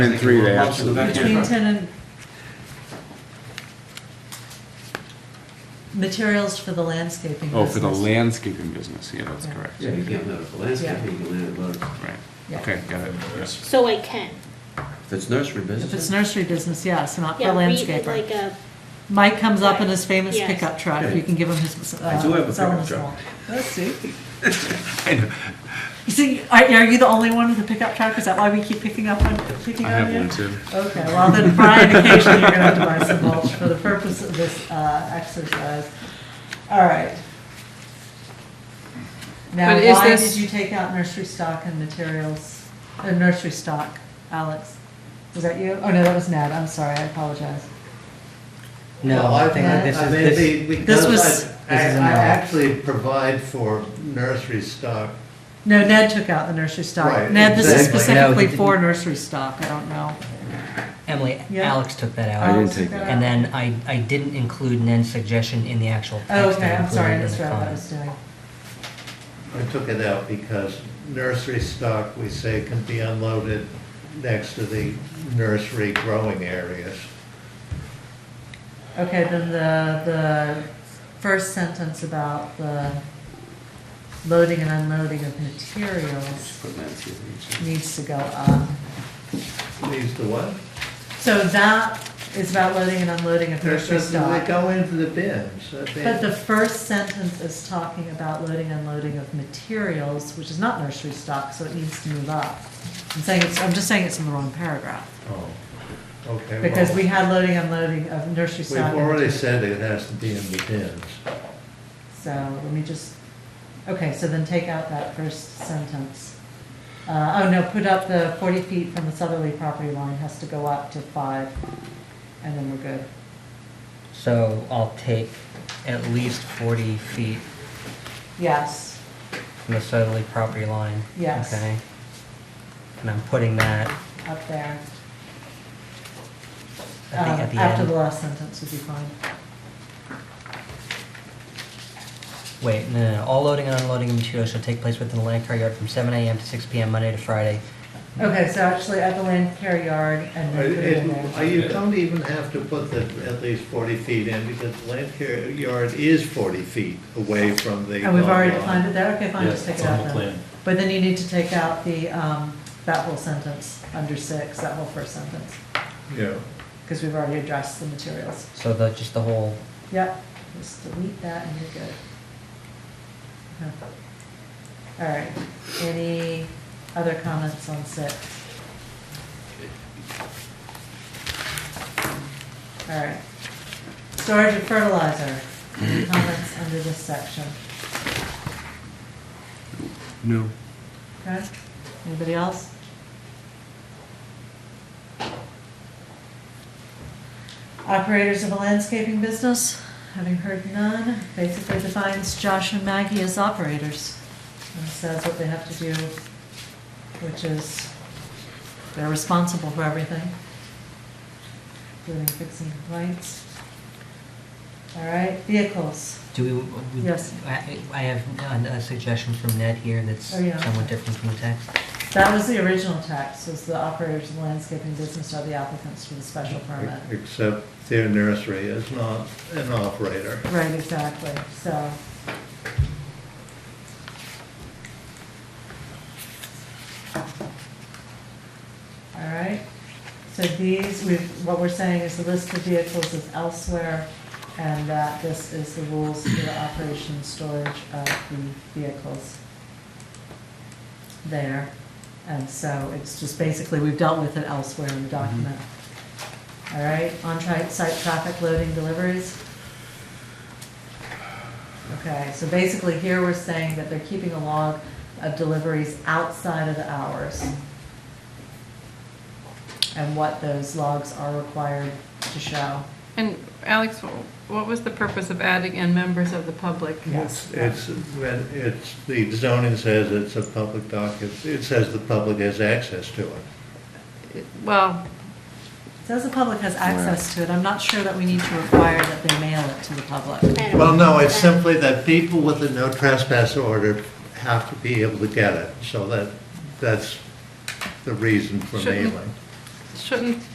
And three, they Motion absolutely. back in. Between ten and. Materials for the landscaping Oh, for the business. landscaping business, yeah, that's correct. Yeah, you can't let it for landscaping, you can let it alone. Right, Yeah. okay, got it, yes. So I can. If it's nursery If it's business, nursery business, yes, not for Yeah, read it landscaper. like a, Mike comes up in his famous Yes. pickup truck, you can give him his, uh, I do have a sell pickup him his truck. one. That's sweet. I know, You see, are, are you the only one with a pickup truck? Is that why we keep picking up on, picking I on have you? one too. Okay, well then Brian, occasionally you're gonna have to buy some mulch for the purpose of this uh, exercise. All right. Now, But is why this- did you take out nursery stock and materials, uh, nursery stock, Alex? Was that you? Oh, no, that was Ned, I'm sorry, I apologize. No, I think Well, this I is, mean, this, the- the- this was- I I This is a no. actually provide for nursery stock. No, Ned took out the nursery stock. Right, Ned, this is exactly. No, he specifically didn't. for nursery stock, I don't know. Emily, Yeah. Alex took that I out. didn't take that. And then I, I didn't include Nen's suggestion in the actual Oh, text. okay, I I'm sorry, I included it in misread the what I comments. was doing. I took it out because nursery stock, we say, can be unloaded next to the nursery growing areas. Okay, then the, the first sentence about the loading and unloading of materials Put landscaping, too. needs to go up. These the what? So that is about loading and unloading of nursery They stock. go into the bins. I mean, But the first sentence is talking about loading and unloading of materials, which is not nursery stock, so it needs to move up. I'm saying, it's I'm just saying it's in the wrong paragraph, Oh, okay. well, because we had loading and unloading of nursery We've stock. and already materials. said it has to be in the bins. So let me just, okay, so then take out that first sentence. Uh, oh no, put up the forty feet from the southerly property line has to go up to five, and then we're good. So I'll take at least forty feet Yes, from the southerly property line. Yes. Okay? And I'm putting that up there. at the, at Um, the After the end. last sentence would be fine. Wait, no, no, no. all loading and unloading of materials shall take place within the land car yard from seven AM to six PM, Monday to Friday. Okay, so actually at the land care yard and I- then put it in it- I- there. You don't even have to put the, at least 40 feet in, because the land care yard is 40 feet away from the. And we've lot already line. defined it there, okay, fine, Yeah, just take it's it on out the then. plan. But then you need to take out the, um, that whole sentence, under six, that whole first sentence, Yeah. because we've already addressed the materials. So the, just the whole, Yep, just delete that and you're good. Okay. All right, any other comments on six? All right, storage of fertilizer, any comments under this section? No. Okay, anybody else? Operators of a landscaping business, having heard none, basically defines Josh and Maggie as operators and says what they have to do, which is they're responsible for everything, including fixing lights. All right, vehicles. do we? we- Yes. I, I have a a suggestion from Ned here that's Oh, yeah. somewhat different from the text. That was the original text, was the operators of the landscaping business are the applicants for the special permit. Except their nursery is not an operator. Right, exactly, so. All right, so these, we've, what we're saying is the list of vehicles is elsewhere, and that this is the rules for the operation and storage of the vehicles there. And so it's just basically, we've dealt with it elsewhere in the document. All right, on-site site traffic loading deliveries. Okay, so basically here we're saying that they're keeping a log of deliveries outside of the hours. And what those logs are required to show. And Alex, wh- what was the purpose of adding in members of the public? Yes. It's, when it's, the zoning says it's a public document, it says the public has access to it. It- Well, Says the public has access to it, I'm not sure that we need to require that they mail it to the public. I don't Well, no, it's know. simply that people with a no trespass order have to be able to get it, so that, that's the reason for Shouldn't- mailing. shouldn't